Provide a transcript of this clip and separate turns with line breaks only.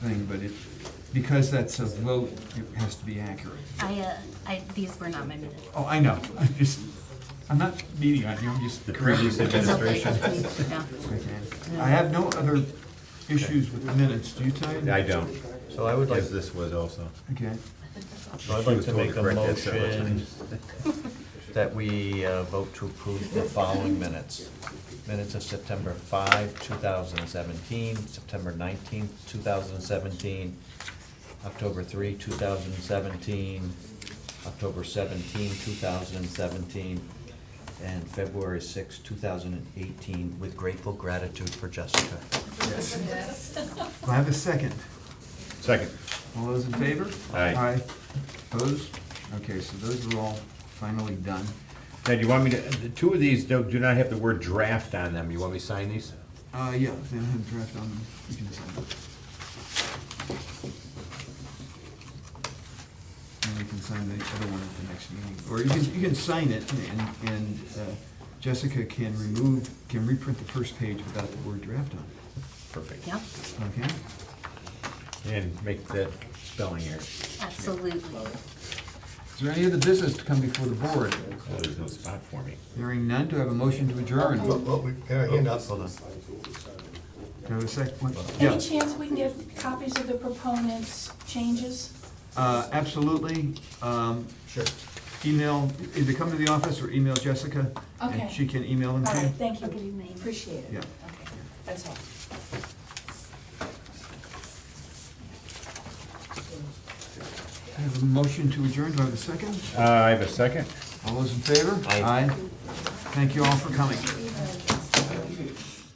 thing, but it, because that's a vote, it has to be accurate.
I, uh, I, these were not my minutes.
Oh, I know, I just, I'm not beating on you, I'm just
The
correcting.
previous
you.
It's okay,
Administration.
that's me, no.
Okay. I have no other issues with the minutes, do you, Ty?
I don't,
So I would like,
because this was also.
Okay,
so I'd
She
like
was
to
told
make a
correct that several
motion
times.
that we uh, vote to approve the following minutes. Minutes of September five, two thousand and seventeen, September nineteenth, two thousand and seventeen, October three, two thousand and seventeen, October 17, thousand and seventeen, and February 6, thousand and eighteen, with grateful gratitude for Jessica.
Do I have a second.
Second.
All those in favor?
Aye.
Aye. Opposed? Okay, so those are all finally done.
Now, do you want me to, the two of these do do not have the word draft on them. You want me to sign these?
Uh, yeah, they don't have draft on them, you can sign them. And we can sign the other one at the next meeting, or you can, you can sign it, and, and uh, Jessica can remove, can reprint the first page without the word draft on
Perfect.
Yep,
it, okay?
And make the spelling error.
absolutely.
Is there any other business to come before the board?
Oh, there's no spot for me.
Hearing none, do I have a motion to adjourn?
Well,
Do
well, we have a hand up.
Hold on.
I have a second?
Any chance we can get copies of the proponents' changes?
Uh, absolutely, um,
Sure.
email, either come to the office or email Jessica, and
Okay.
she can email them
All
to you.
right, thank
I'll give you
you.
my email.
Appreciate
Yeah.
it. That's all.
I have a motion to adjourn, do I have a second?
Uh, I have a second.
All those in favor?
Aye.
Thank you all for coming.